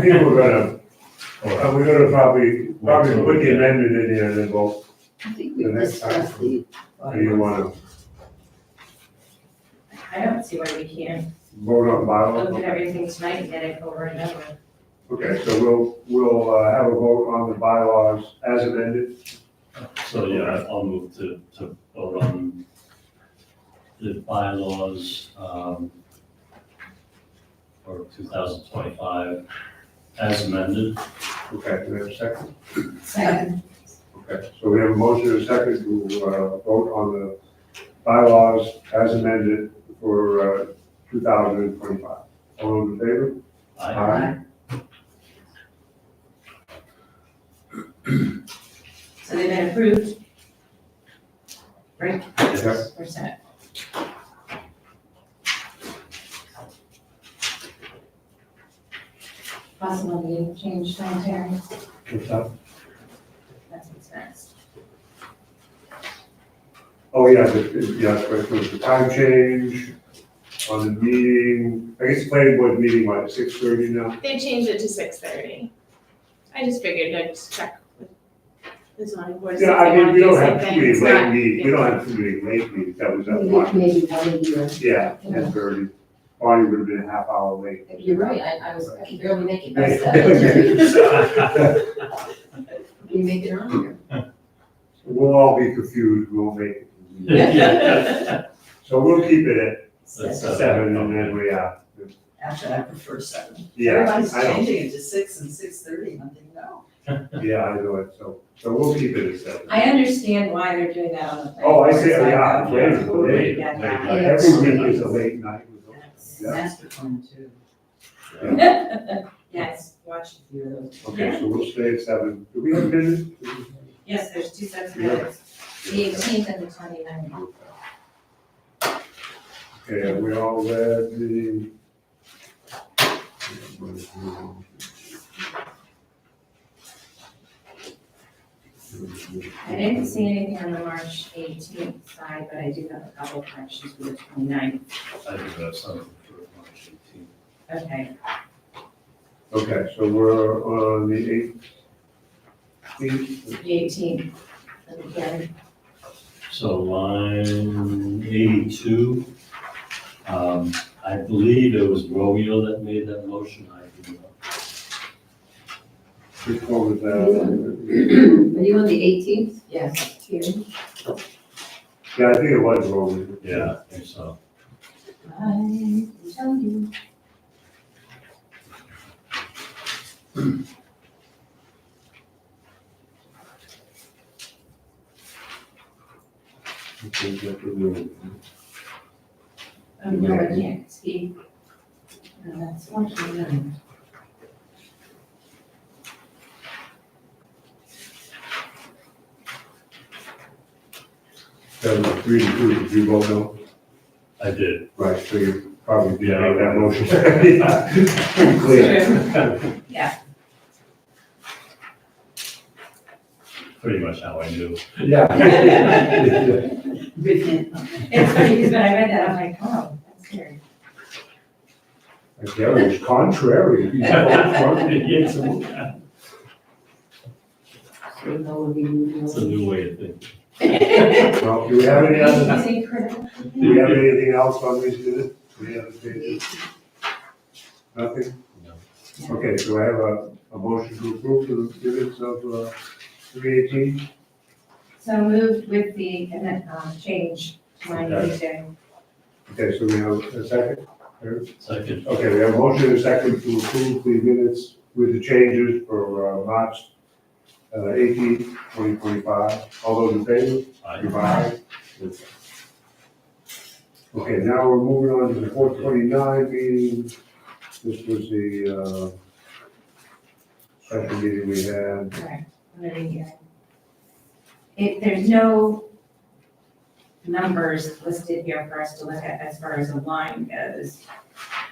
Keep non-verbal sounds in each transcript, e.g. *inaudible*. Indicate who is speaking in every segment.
Speaker 1: I think we're gonna, uh, we're gonna probably, probably put the amendment in there and then vote,
Speaker 2: I think we
Speaker 1: The next time.
Speaker 2: discussed the.
Speaker 1: do you wanna
Speaker 3: I don't see why we can't
Speaker 1: vote on
Speaker 3: look at
Speaker 1: bylaw?
Speaker 3: everything tonight and get it over and over.
Speaker 1: Okay, so we'll, we'll, uh, have a vote on the bylaws as amended,
Speaker 4: So, yeah, I'll move to, to vote on the bylaws, um, for two thousand twenty-five as amended.
Speaker 1: okay, do we have a second?
Speaker 2: Second.
Speaker 1: Okay, so we have a motion and a second to, uh, vote on the bylaws as amended for, uh, two thousand and twenty-five. All in favor?
Speaker 4: I, *laughs*
Speaker 1: Aye.
Speaker 3: So they've been approved. Right?
Speaker 1: Yes.
Speaker 3: We're set. Possible meeting change sanitary,
Speaker 1: What's up?
Speaker 3: that's what's next.
Speaker 1: Oh, yeah, the, yeah, that's right, there was the time change on the meeting, I guess the planning board meeting, what, six thirty now?
Speaker 5: They changed it to six thirty. I just figured I'd just check with the zoning board. see
Speaker 1: Yeah,
Speaker 5: if
Speaker 1: I
Speaker 5: they
Speaker 1: mean,
Speaker 5: wanna
Speaker 1: we
Speaker 5: do
Speaker 1: don't
Speaker 5: the same
Speaker 1: have too
Speaker 5: thing.
Speaker 1: many
Speaker 5: It's
Speaker 1: late
Speaker 5: not-
Speaker 1: meetings, we don't have too many late meetings, that was that
Speaker 2: Maybe,
Speaker 3: Mm-hmm.
Speaker 1: one.
Speaker 2: maybe one a year.
Speaker 1: Yeah, ten thirty, Bonnie would have been a half hour
Speaker 3: *laughs*
Speaker 1: late.
Speaker 2: You're right, I, I was, I can barely make it
Speaker 1: *laughs*
Speaker 2: myself.
Speaker 1: We'll
Speaker 2: You make it earlier.
Speaker 1: all be confused, we'll make it.
Speaker 4: Yeah.
Speaker 1: So we'll keep it
Speaker 4: That's,
Speaker 1: at
Speaker 4: uh,
Speaker 1: seven and then we, uh,
Speaker 6: Actually, I prefer seven.
Speaker 1: yeah,
Speaker 6: Everybody's
Speaker 1: I don't,
Speaker 6: changing it to six and six thirty, oh, and I think, no.
Speaker 1: yeah, I know it, so, so we'll keep it at seven.
Speaker 3: I understand why they're doing that on the. planning
Speaker 1: Oh, I
Speaker 3: board
Speaker 1: see,
Speaker 3: side,
Speaker 1: yeah,
Speaker 3: though.
Speaker 1: yeah, late, late
Speaker 3: Yeah, yeah.
Speaker 1: night. Uh, every week is a late night. Yeah.
Speaker 6: Master plan too,
Speaker 3: Yes, *laughs* watch,
Speaker 6: if you're those.
Speaker 1: Okay, so we'll stay at seven. Do we have minutes?
Speaker 3: yes, there's two sets of
Speaker 1: Yeah.
Speaker 3: minutes, the eighteenth and the twenty-ninth.
Speaker 1: Okay, we all read the.
Speaker 3: I didn't see anything on the March eighteenth side, but I do have a couple corrections for the 29th.
Speaker 4: I think that's something for March eighteenth.
Speaker 3: Okay,
Speaker 1: Okay, so we're on the eighteenth.
Speaker 3: the eighteenth, again,
Speaker 4: So line eighty-two, um, I believe it was Romeo that made that motion, I do not.
Speaker 1: Which one was that?
Speaker 2: Are you on the eighteenth?
Speaker 3: yes.
Speaker 2: Here.
Speaker 1: Yeah, I think it was Roman.
Speaker 4: Yeah, I think so.
Speaker 2: I tell you.
Speaker 1: I think that was Roman.
Speaker 3: Oh, no, I can't speak. And that's one, and
Speaker 1: That was three to two, did you vote no?
Speaker 4: I did.
Speaker 1: Right, so you probably did
Speaker 4: Yeah.
Speaker 1: make that motion. *laughs* Yeah, Pretty clear.
Speaker 4: Pretty much how I knew.
Speaker 1: Yeah.
Speaker 6: Written.
Speaker 3: It's funny, because when I read that, I'm like, oh, that's weird.
Speaker 1: Like Gary was contrary. He's all
Speaker 4: *laughs*
Speaker 1: contrary.
Speaker 4: Yes.
Speaker 2: So that would be, you
Speaker 4: It's a new way of thinking.
Speaker 1: Well, do we have any other,
Speaker 3: Is it critical?
Speaker 1: do we have anything else on these minutes? Do we have anything? Nothing?
Speaker 4: No.
Speaker 1: Okay, so I have a, a motion to approve the minutes of, uh, three eighteen.
Speaker 3: *laughs* So moved with the, and then, um, change to my
Speaker 1: Okay.
Speaker 3: new day.
Speaker 1: Okay, so we have a second? Eric?
Speaker 4: Second,
Speaker 1: Okay, we have a motion and a second to approve the minutes with the changes for, uh, March, uh, eighteen, twenty twenty-five. All those in favor?
Speaker 4: I,
Speaker 1: Goodbye. Okay, now we're moving on to the four twenty-nine meeting. This was the, uh, special meeting we had.
Speaker 3: Correct, I'm gonna read it. If there's no numbers listed here for us to look at as far as a line goes.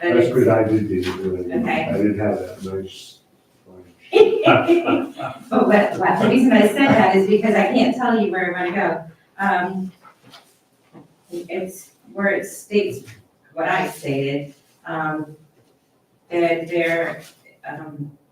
Speaker 3: but
Speaker 1: That's
Speaker 3: it's-
Speaker 1: because I did these, really.
Speaker 3: Okay.
Speaker 1: I didn't have that nice.
Speaker 3: *laughs* But what, what, Oh, the reason I said that is because I can't tell you where I wanna go. Um, it's where it states what I stated, um, that there, um,